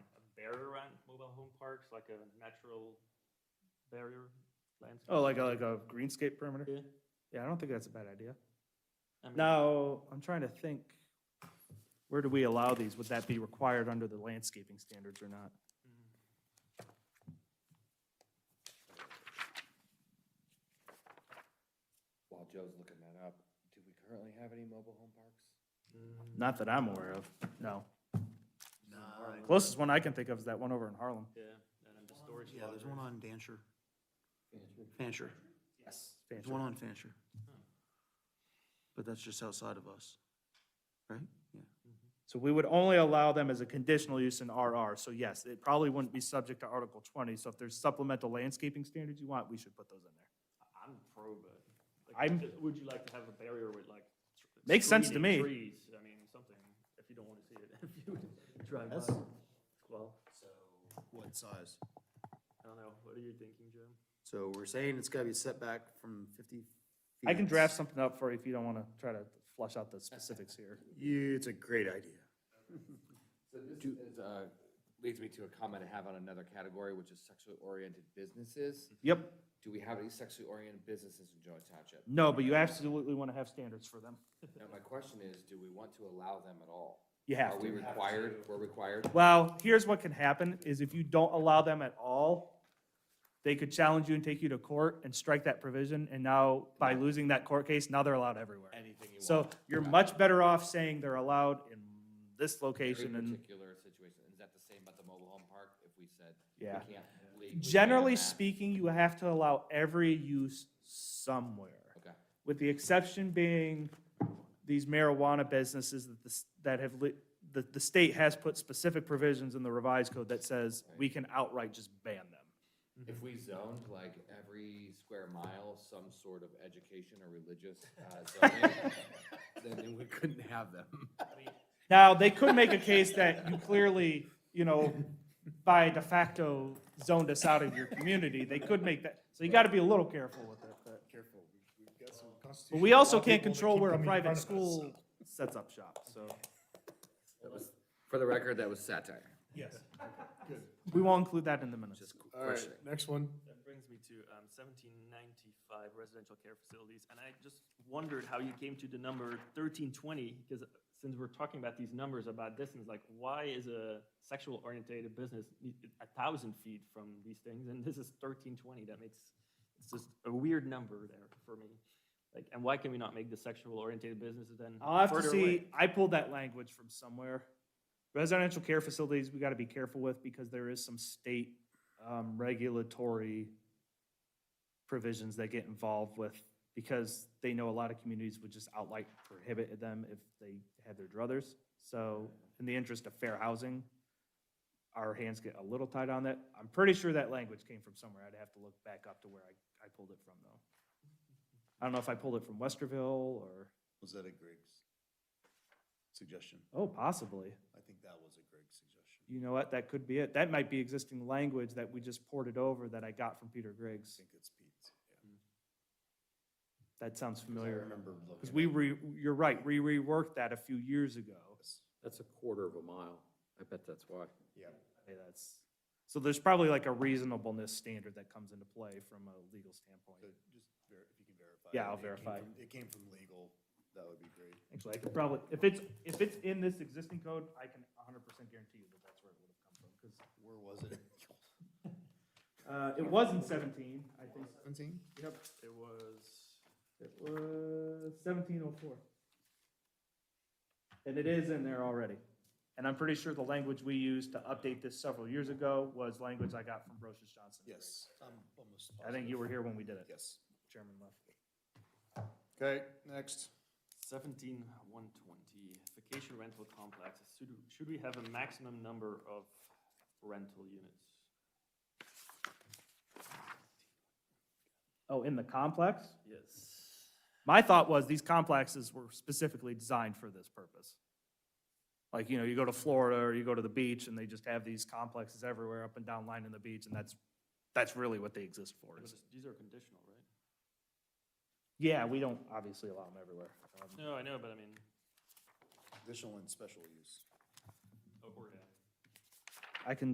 home parks, like a natural barrier landscape? Oh, like a, like a greenscape perimeter? Yeah. Yeah, I don't think that's a bad idea. I mean, Now, I'm trying to think, where do we allow these? Would that be required under the landscaping standards or not? mm, While Joe's looking that up, do we currently have any mobile home parks? mm, Not that I'm aware of, no. No, Closest one I can think of is that one over in Harlem. Yeah, and then the storage. Yeah, there's one lockers. on Dancher. Fancher. Yes. There's one on Fancher. But that's just outside of us, right? Yeah. So we would only allow them as a conditional use in RR, so yes, it probably wouldn't be subject to Article twenty, so if there's supplemental landscaping standards you want, we should put those in there. I'm pro, but. like, I'm- just- Would you like to have a barrier with like? tr- Makes sense to screening me. Trees, I mean, something, if you don't want to see it, if you drive by. That's- Well, So, what size? I don't know, what are you thinking, Jim? So we're saying it's gotta be setback from fifty? I can feet. draft something up for you if you don't wanna try to flush out the specifics here. You, it's a great idea. So this is, uh, leads me to a comment I have on another category, which is sexually oriented businesses. Yep, Do we have any sexually oriented businesses in Joy Township? no, but you absolutely wanna have standards for them. Now, my question is, do we want to allow them at all? You have Are we to. required, we're required? Well, here's what can happen, is if you don't allow them at all, they could challenge you and take you to court and strike that provision, and now, by losing that court case, now they're allowed everywhere. Anything you want. So you're much better off saying they're allowed in this Every location and particular situation, is that the same about the mobile home park, if we said? we Yeah. can't legally ban generally that? speaking, you have to allow every use somewhere. Okay. with the exception being these marijuana businesses that the, s- that have, li- the, the state has put specific provisions in the revised code that says we can outright just ban them. If we zoned like every square mile, some sort of education or religious uh, zoning, then we couldn't have them. Now, they could make a case that you clearly, you know, by de facto zoned us out of your community, they could make that, so you gotta be a little careful with it, but. Careful, we- we've got some But constitutional we also law can't people that control keep where a them in private front of us, so- school sets up shop, so That was- For the record, that was satire. Yes. Good. we won't include that in the minutes. Just All right, questioning. next one. That brings me to um, 1795 residential care facilities, and I just wondered how you came to the number 1320, because since we're talking about these numbers about distance, like, why is a sexual orientated business need- a 1,000 feet from these things, and this is 1320? That makes, it's just a weird number there for me. Like, and why can we not make the sexual orientated businesses then I'll have to further see, away? I pulled that language from somewhere. Residential care facilities, we gotta be careful with because there is some state, um, regulatory provisions that get involved with, because they know a lot of communities would just outright prohibit them if they had their druthers. So in the interest of fair housing, our hands get a little tied on that. I'm pretty sure that language came from somewhere. I'd have to look back up to where I, I pulled it from though. I don't know if I pulled it from Westerville or, Was that a Griggs suggestion? oh, possibly. I think that was a Griggs suggestion. You know what, that could be it. That might be existing language that we just ported over that I got from Peter I Griggs. think it's Pete's, yeah. That sounds I familiar. remember looking. Because we re, you're right, we reworked that a few years ago. That's a quarter of a mile. I bet that's why. Yeah, Hey, that's, so there's probably like a reasonableness standard that comes into play from a legal so standpoint. just ver, if you can verify. Yeah, it. I'll It came verify. from- It came from legal, that would be great. Actually, I could probably, if it's, if it's in this existing code, I can hundred percent guarantee you that that's where it would have come from, because, Where was it? uh, it was in seventeen, I think. Seventeen? Yep, It was, it was seventeen oh four. And it is in there already. And I'm pretty sure the language we used to update this several years ago was language I got from Brochus Johnson. Yes, I'm almost. I think you positive. were here when we did it. Yes. Chairman left. Okay, next. Seventeen one twenty, vacation rental complexes, should, should we have a maximum number of rental units? Oh, in the complex? Yes. My thought was these complexes were specifically designed for this purpose. Like, you know, you go to Florida or you go to the beach and they just have these complexes everywhere up and down lining the beach and that's, that's really what they exist for. Because These are conditional, right? Yeah, we don't obviously allow them everywhere. Um, No, I know, but I mean, Additional and special use. oh, or, yeah. I can